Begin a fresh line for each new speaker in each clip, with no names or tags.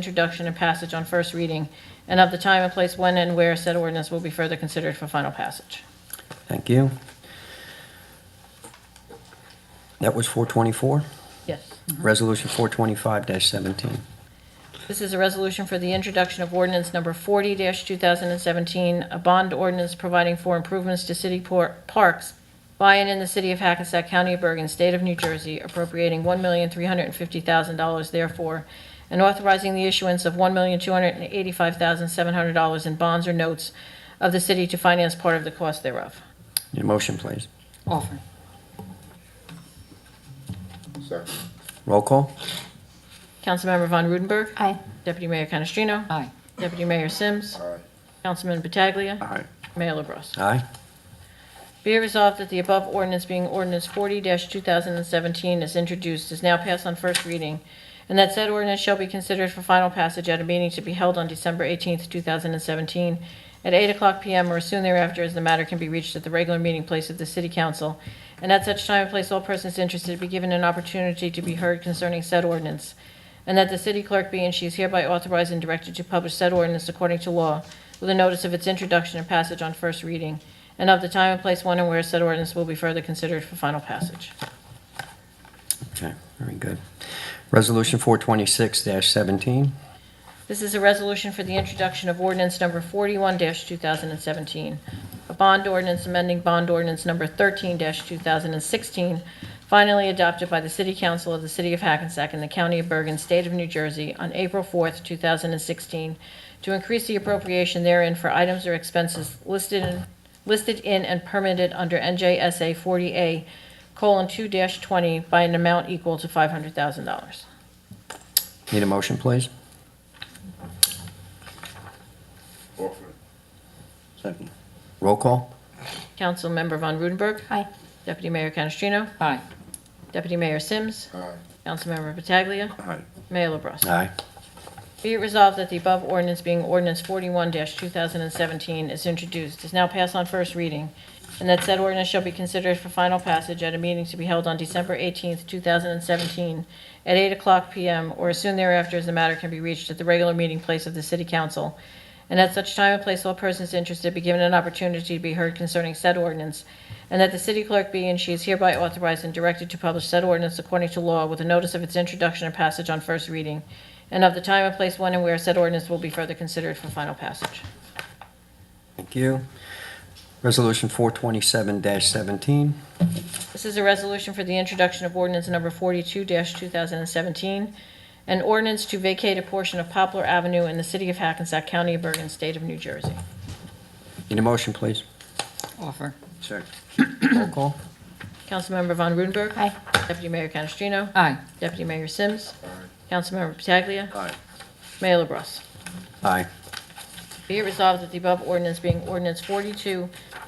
introduction and passage on first reading, and of the time and place when and where said ordinance will be further considered for final passage.
Thank you. That was 424.
Yes.
Resolution 425-17.
This is a resolution for the introduction of ordinance number 40-2017, a bond ordinance providing for improvements to city por- parks by and in the city of Hackensack County of Bergen, state of New Jersey, appropriating $1,350,000 therefore, and authorizing the issuance of $1,285,700 in bonds or notes of the city to finance part of the cost thereof.
Need a motion, please?
Offer.
Second.
Roll call?
Councilmember Von Rudenberg.
Aye.
Deputy Mayor Canestrino.
Aye.
Deputy Mayor Sims.
Aye.
Councilman Pataglia.
Aye.
Mayor LaBrus.
Aye.
Be it resolved that the above ordinance being ordinance forty two thousand and seventeen is introduced, is now passed on first reading, and that said ordinance shall be considered for final passage at a meeting to be held on December eighteenth, two thousand and seventeen, at eight o'clock PM or as soon thereafter, as the matter can be reached at the regular meeting place of the city council, and at such time and place all persons interested be given an opportunity to be heard concerning said ordinance, and that the city clerk be and she is hereby authorized and directed to publish said ordinance according to law with a notice of its introduction and passage on first reading, and of the time and place when and where said ordinance will be further considered for final passage.
Okay, very good. Resolution 426-17.
This is a resolution for the introduction of ordinance number 41-2017, a bond ordinance amending bond ordinance number 13-2016, finally adopted by the City Council of the City of Hackensack and the County of Bergen, State of New Jersey, on April 4th, 2016, to increase the appropriation therein for items or expenses listed in listed in and permitted under NJSA 40A:2-20 by an amount equal to $500,000.
Need a motion, please?
Offer.
Second. Roll call?
Councilmember Von Rudenberg.
Aye.
Deputy Mayor Canestrino.
Aye.
Deputy Mayor Sims.
Aye.
Councilmember Pataglia.
Aye.
Mayor LaBrus.
Aye.
Be it resolved that the above ordinance being ordinance 41-2017 is introduced, is now passed on first reading, and that said ordinance shall be considered for final passage at a meeting to be held on December 18th, 2017, at 8 o'clock p.m. or as soon thereafter as the matter can be reached at the regular meeting place of the city council, and at such time and place all persons interested be given an opportunity to be heard concerning said ordinance, and that the city clerk be and she is hereby authorized and directed to publish said ordinance according to law with a notice of its introduction and passage on first reading, and of the time and place when and where said ordinance will be further considered for final passage.
Thank you. Resolution 427-17.
This is a resolution for the introduction of ordinance number 42-2017, an ordinance to vacate a portion of Poplar Avenue in the city of Hackensack County of Bergen, state of New Jersey.
Need a motion, please?
Offer.
Second. Roll call?
Councilmember Von Rudenberg.
Aye.
Deputy Mayor Canestrino.
Aye.
Deputy Mayor Sims.
Aye.
Councilmember Pataglia.
Aye.
Mayor LaBrus.
Aye.
Be it resolved that the above ordinance being ordinance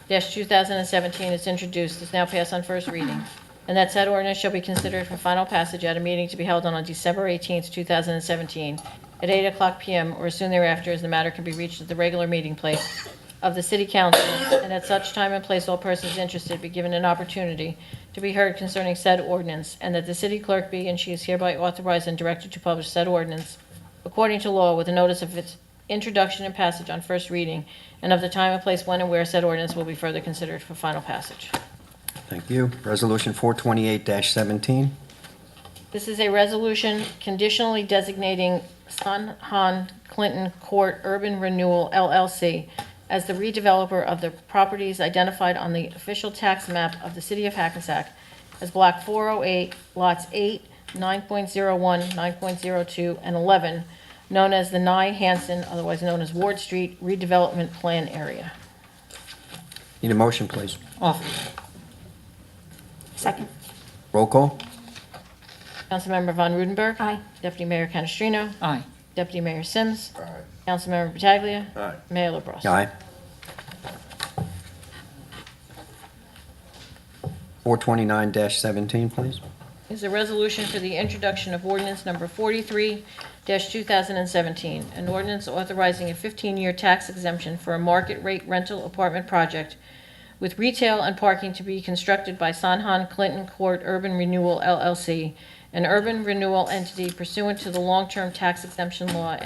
42-2017 is introduced, is now passed on first reading, and that said ordinance shall be considered for final passage at a meeting to be held on December 18th, 2017, at 8 o'clock p.m. or as soon thereafter, as the matter can be reached at the regular meeting place of the city council, and at such time and place all persons interested be given an opportunity to be heard concerning said ordinance, and that the city clerk be and she is hereby authorized and directed to publish said ordinance according to law with a notice of its introduction and passage on first reading, and of the time and place when and where said ordinance will be further considered for final passage.
Thank you. Resolution 428-17.
This is a resolution conditionally designating Sun Han Clinton Court Urban Renewal LLC as the redeveloper of the properties identified on the official tax map of the city of Hackensack as Block 408, Lots 8, 9.01, 9.02, and 11, known as the Nye Hanson, otherwise known as Ward Street redevelopment plan area.
Need a motion, please?
Offer. Second.
Roll call?
Councilmember Von Rudenberg.
Aye.
Deputy Mayor Canestrino.
Aye.
Deputy Mayor Sims.
Aye.
Councilmember Pataglia.
Aye.
Mayor LaBrus.
Aye. 429-17, please.
is a resolution for the introduction of ordinance number 43-2017, an ordinance authorizing a 15-year tax exemption for a market-rate rental apartment project with retail and parking to be constructed by Sanhan Clinton Court Urban Renewal LLC an urban renewal entity pursuant to the long-term tax exemption law